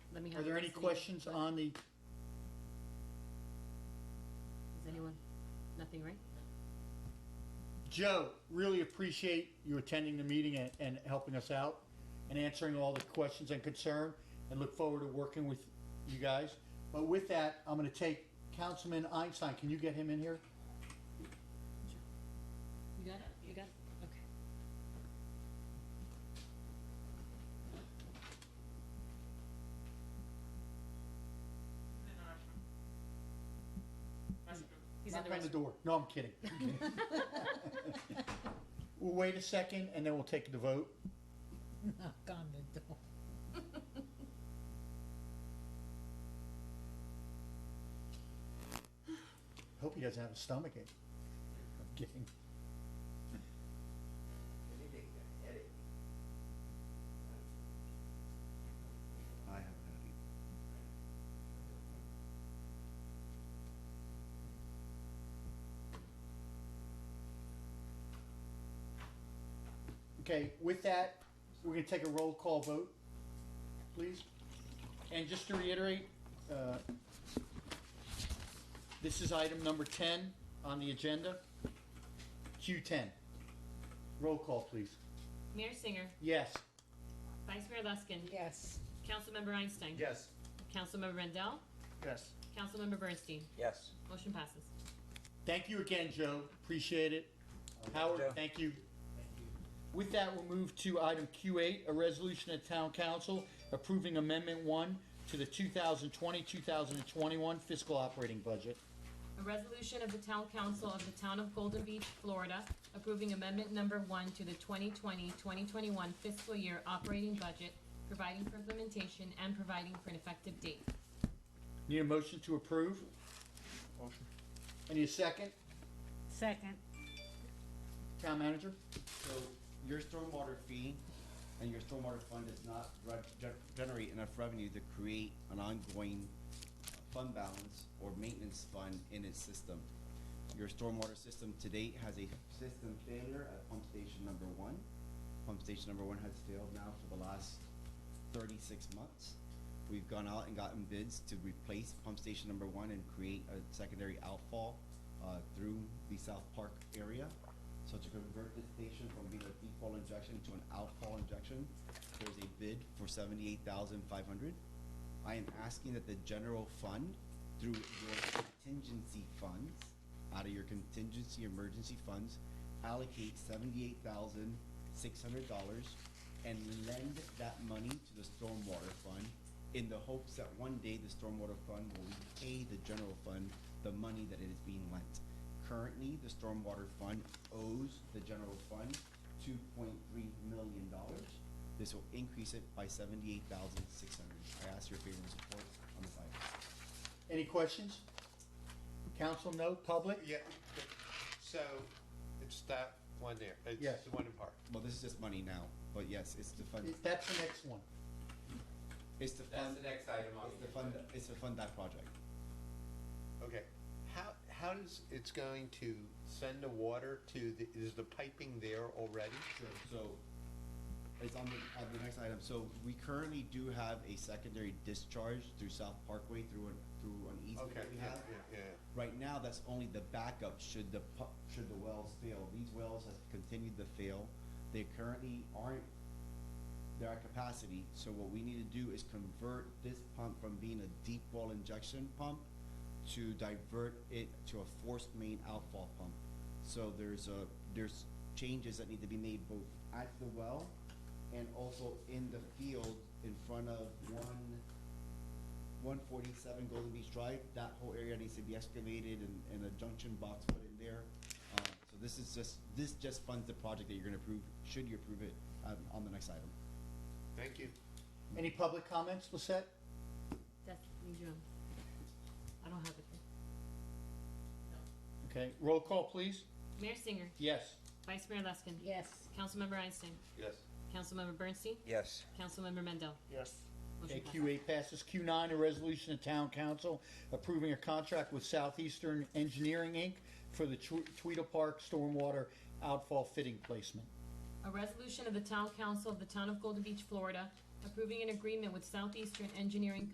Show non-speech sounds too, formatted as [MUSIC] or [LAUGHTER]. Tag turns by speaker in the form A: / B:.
A: we
B: Are
A: have
B: there
A: it
B: any
A: this week.
B: questions on the,
A: Does anyone, nothing, right?
B: Joe, really appreciate you attending the meeting and, and helping us out and answering all the questions and concern and look forward to working with you guys. But with that, I'm gonna take Councilman Einstein, can you get him in here?
A: You got it? You got it? Okay. He's in
B: Knock
A: the
B: on the
A: restroom.
B: door. No, I'm kidding.
C: [LAUGHS]
B: I'm kidding. We'll wait a second and then we'll take the vote.
C: knock on the door.
B: Hope he doesn't have a stomach ache. I'm kidding.
D: Anything, headache.
E: I haven't had it.
B: Okay, with that, we're gonna take a roll call vote, please. And just to reiterate, uh, this is item number ten on the agenda. Q ten. Roll call, please.
A: Mayor Singer,
B: Yes.
A: Vice Mayor Luskin,
C: Yes.
A: Councilmember Einstein.
D: Yes.
A: Councilmember Rendell,
B: Yes.
A: Councilmember Bernstein.
D: Yes.
A: Motion passes.
B: Thank you again, Joe. Appreciate it.
D: Joe.
B: Howard, thank you. With that, we'll move to item Q8, a resolution of Town Council approving Amendment 1 to the 2020-2021 fiscal operating budget.
A: A resolution of the Town Council of the Town of Golden Beach, Florida, approving amendment number one to the 2020-2021 fiscal year operating budget, providing for implementation and providing for an effective date.
B: Need a motion to approve?
D: Motion.
B: I need a second.
C: Second.
B: Town manager?
E: So your stormwater fee and your stormwater fund does not re- ge- generate enough revenue to create an ongoing fund balance or maintenance fund in its system. Your stormwater system to date has a system failure at pump station number one. Pump station number one has failed now for the last thirty-six months. We've gone out and gotten bids to replace pump station number one and create a secondary outfall uh, through the South Park area. So to convert this station from being a default injection to an outfall injection, there's a bid for seventy-eight thousand five hundred. I am asking that the general fund, through your contingency funds, out of your contingency emergency funds, allocate seventy-eight thousand six hundred dollars and lend that money to the stormwater fund in the hopes that one day the stormwater fund will repay the general fund the money that it is being lent. Currently, the stormwater fund owes the general fund two point three million dollars. This will increase it by seventy-eight thousand six hundred. I ask your favor and support on this item.
B: Any questions? Council, no? Public?
F: Yeah, so it's that one there.
B: Yes.
F: It's the one in part.
E: Well, this is just money now, but yes, it's the fund,
B: That's the next one.
E: it's the
D: That's
E: fund,
D: the next item on
E: it's
D: the
E: the fund, it's to fund that project.
F: Okay. How, how does, it's going to send the water to the, is the piping there already?
E: Sure, so, it's on the, on the next item, so we currently do have a secondary discharge through South Parkway through an, through an easement
F: Okay,
E: that we
F: yeah,
E: have.
F: yeah, yeah.
E: Right now, that's only the backup should the pu- should the wells fail, these wells have continued to fail, they currently aren't, they're at capacity, so what we need to do is convert this pump from being a deep well injection pump to divert it to a forced main outfall pump. So there's a, there's changes that need to be made both at the well and also in the field in front of one one forty-seven Golden Beach Drive, that whole area needs to be excavated and, and a junction box put in there. Uh, so this is just, this just funds the project that you're gonna approve, should you approve it, um, on the next item.
F: Thank you.
B: Any public comments, Lisette?
A: That's, leave your own. I don't have it.
B: Okay, roll call, please.
A: Mayor Singer,
B: Yes.
A: Vice Mayor Luskin.
C: Yes.
A: Councilmember Einstein,
F: Yes.
A: Councilmember Bernstein,
D: Yes.
A: Councilmember Mendel.
B: Yes.
A: Motion
B: Okay,
A: passes.
B: Q eight passes. Q nine, a resolution of town council approving a contract with Southeastern Engineering, Inc. for the Tw- Tweedle Park Stormwater Outfall Fitting Placement.
A: A resolution of the Town Council of the Town of Golden Beach, Florida, approving an agreement with Southeastern Engineering